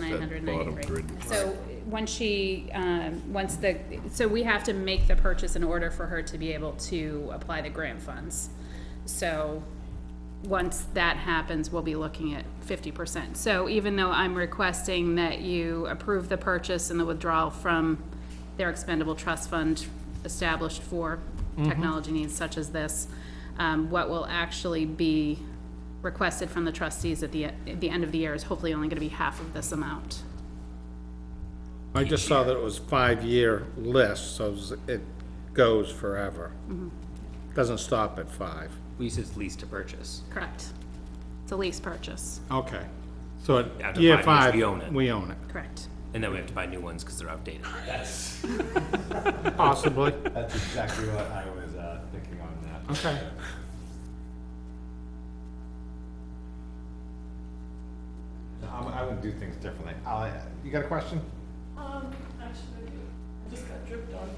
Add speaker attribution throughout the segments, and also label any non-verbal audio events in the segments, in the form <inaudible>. Speaker 1: nine hundred
Speaker 2: bottom
Speaker 1: ninety-three.
Speaker 2: grid is
Speaker 1: So, once she, um, once the, so we have to make the purchase in order for her to be able to apply the grant funds. So, once that happens, we'll be looking at fifty percent. So even though I'm requesting that you approve the purchase and the withdrawal from their expendable trust fund established for technology needs such as this, um, what will actually be requested from the trustees at the, at the end of the year is hopefully only gonna be half of this amount.
Speaker 3: I just saw that it was five-year list, so it goes forever. Doesn't stop at five.
Speaker 4: We use its lease to purchase.
Speaker 1: Correct? It's a lease purchase,
Speaker 3: Okay. So at
Speaker 4: After
Speaker 3: year
Speaker 4: five
Speaker 3: five,
Speaker 4: years, we own it.
Speaker 3: we own it,
Speaker 1: correct?
Speaker 4: And then we have to buy new ones because they're outdated. That's,
Speaker 3: <laughs> possibly.
Speaker 5: That's exactly what I was uh, thinking on that.
Speaker 3: Okay.
Speaker 5: No, I'm, I would do things differently. i you got a question?
Speaker 6: Um, actually, I do. I just got dripped on,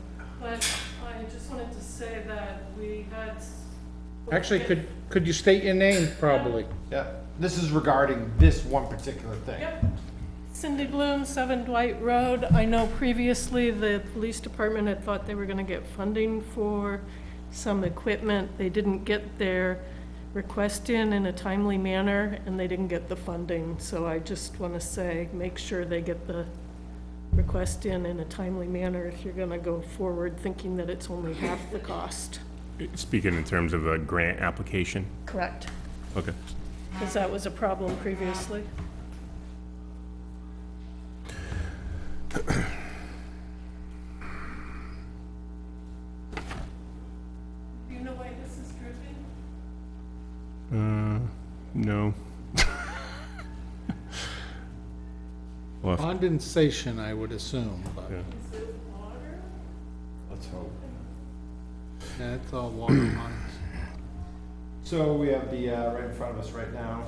Speaker 6: but I just wanted to say that we had. s-
Speaker 3: Actually, could, could you state your name, probably?
Speaker 5: Yeah. This is regarding this one particular thing.
Speaker 6: Yep. Cindy Bloom, Seven Dwight Road. I know previously the police department had thought they were gonna get funding for some equipment. They didn't get their request in in a timely manner, and they didn't get the funding. So I just wanna say, make sure they get the request in in a timely manner if you're gonna go forward thinking that it's only half the cost.
Speaker 2: Speaking in terms of a grant application,
Speaker 6: Correct.
Speaker 2: okay.
Speaker 6: Because that was a problem previously. Do you know why this is dripping?
Speaker 2: No. <laughs>
Speaker 3: Condensation, I would assume, but
Speaker 2: Yeah.
Speaker 6: Is it water?
Speaker 5: Let's hope.
Speaker 3: that's all water lines.
Speaker 5: So we have the, uh, right in front of us right now,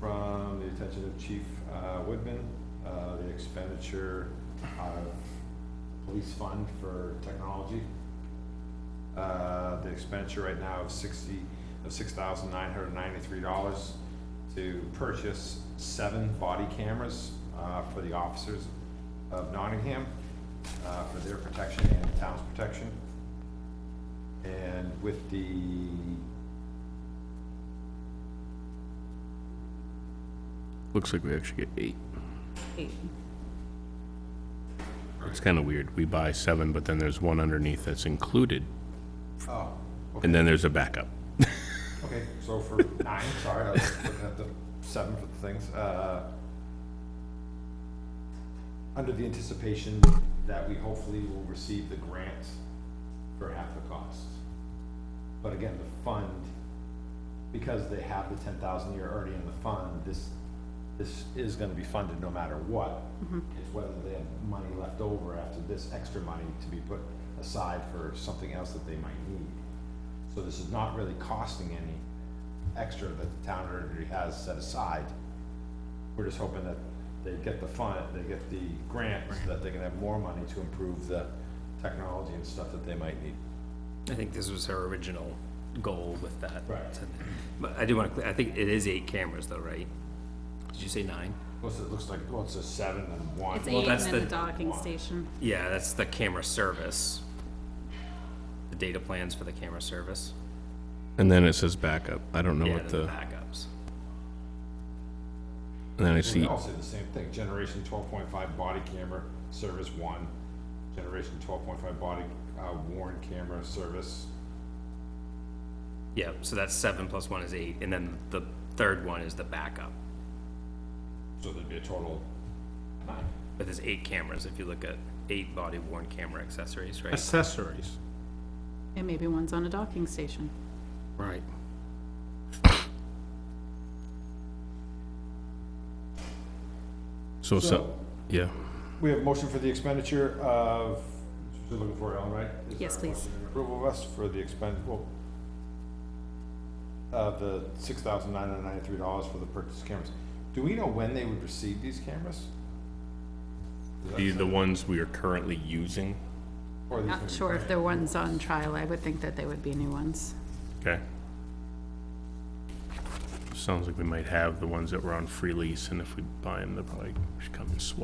Speaker 5: from the attention of Chief uh, Woodman, uh, the expenditure of police fund for technology. Uh, the expenditure right now of sixty, of six thousand nine hundred ninety-three dollars to purchase seven body cameras, uh, for the officers of Nottingham, uh, for their protection and the town's protection. And with the
Speaker 2: Looks like we actually get eight. It's kind of weird. We buy seven, but then there's one underneath that's included,
Speaker 5: Oh,
Speaker 2: and then there's a backup.
Speaker 5: okay, so for nine, sorry, I was looking at the seven for the things, uh. Under the anticipation that we hopefully will receive the grant for half the cost. But again, the fund, because they have the ten thousand year already in the fund, this, this is gonna be funded no matter what. It's whether they have money left over after this extra money to be put aside for something else that they might need. So this is not really costing any extra that the town already has set aside. We're just hoping that they get the fund, they get the grant, so that they can have more money to improve the technology and stuff that they might need.
Speaker 4: I think this was her original goal with that.
Speaker 5: Right.
Speaker 4: But I do want to, I think it is eight cameras though, right? Did you say nine?
Speaker 5: What's it, looks like, well, it's a seven and one.
Speaker 1: It's eight and
Speaker 4: that's
Speaker 1: then the
Speaker 4: the-
Speaker 1: docking station.
Speaker 4: Yeah, that's the camera service. The data plans for the camera service.
Speaker 2: And then it says backup. I don't know
Speaker 4: Yeah,
Speaker 2: what
Speaker 4: then
Speaker 2: the,
Speaker 4: Backups.
Speaker 2: and then
Speaker 5: And
Speaker 2: I
Speaker 5: they
Speaker 2: see,
Speaker 5: all say the same thing, generation twelve point five body camera, service one, generation twelve point five body, uh, worn camera, service.
Speaker 4: Yeah, so that's seven plus one is eight, and then the third one is the backup.
Speaker 5: So there'd be a total of nine.
Speaker 4: But there's eight cameras if you look at eight body worn camera accessories, right?
Speaker 3: Accessories.
Speaker 1: And maybe one's on a docking station.
Speaker 3: Right.
Speaker 2: so, so,
Speaker 5: So-
Speaker 2: yeah.
Speaker 5: We have a motion for the expenditure of, you're looking for it, Ellen, right? Is
Speaker 1: Yes,
Speaker 5: there a
Speaker 1: please.
Speaker 5: motion in Approval of us for the expend, well, uh, the six thousand nine hundred ninety-three dollars for the purchase cameras. Do we know when they would receive these cameras?
Speaker 2: The, the ones we are currently using,
Speaker 5: Or are these gonna
Speaker 1: Not
Speaker 5: be
Speaker 1: sure if
Speaker 5: brand-
Speaker 1: the one's on trial, I would think that they would be new ones.
Speaker 2: okay? Sounds like we might have the ones that were on free lease, and if we buy them, they'll probably come and swap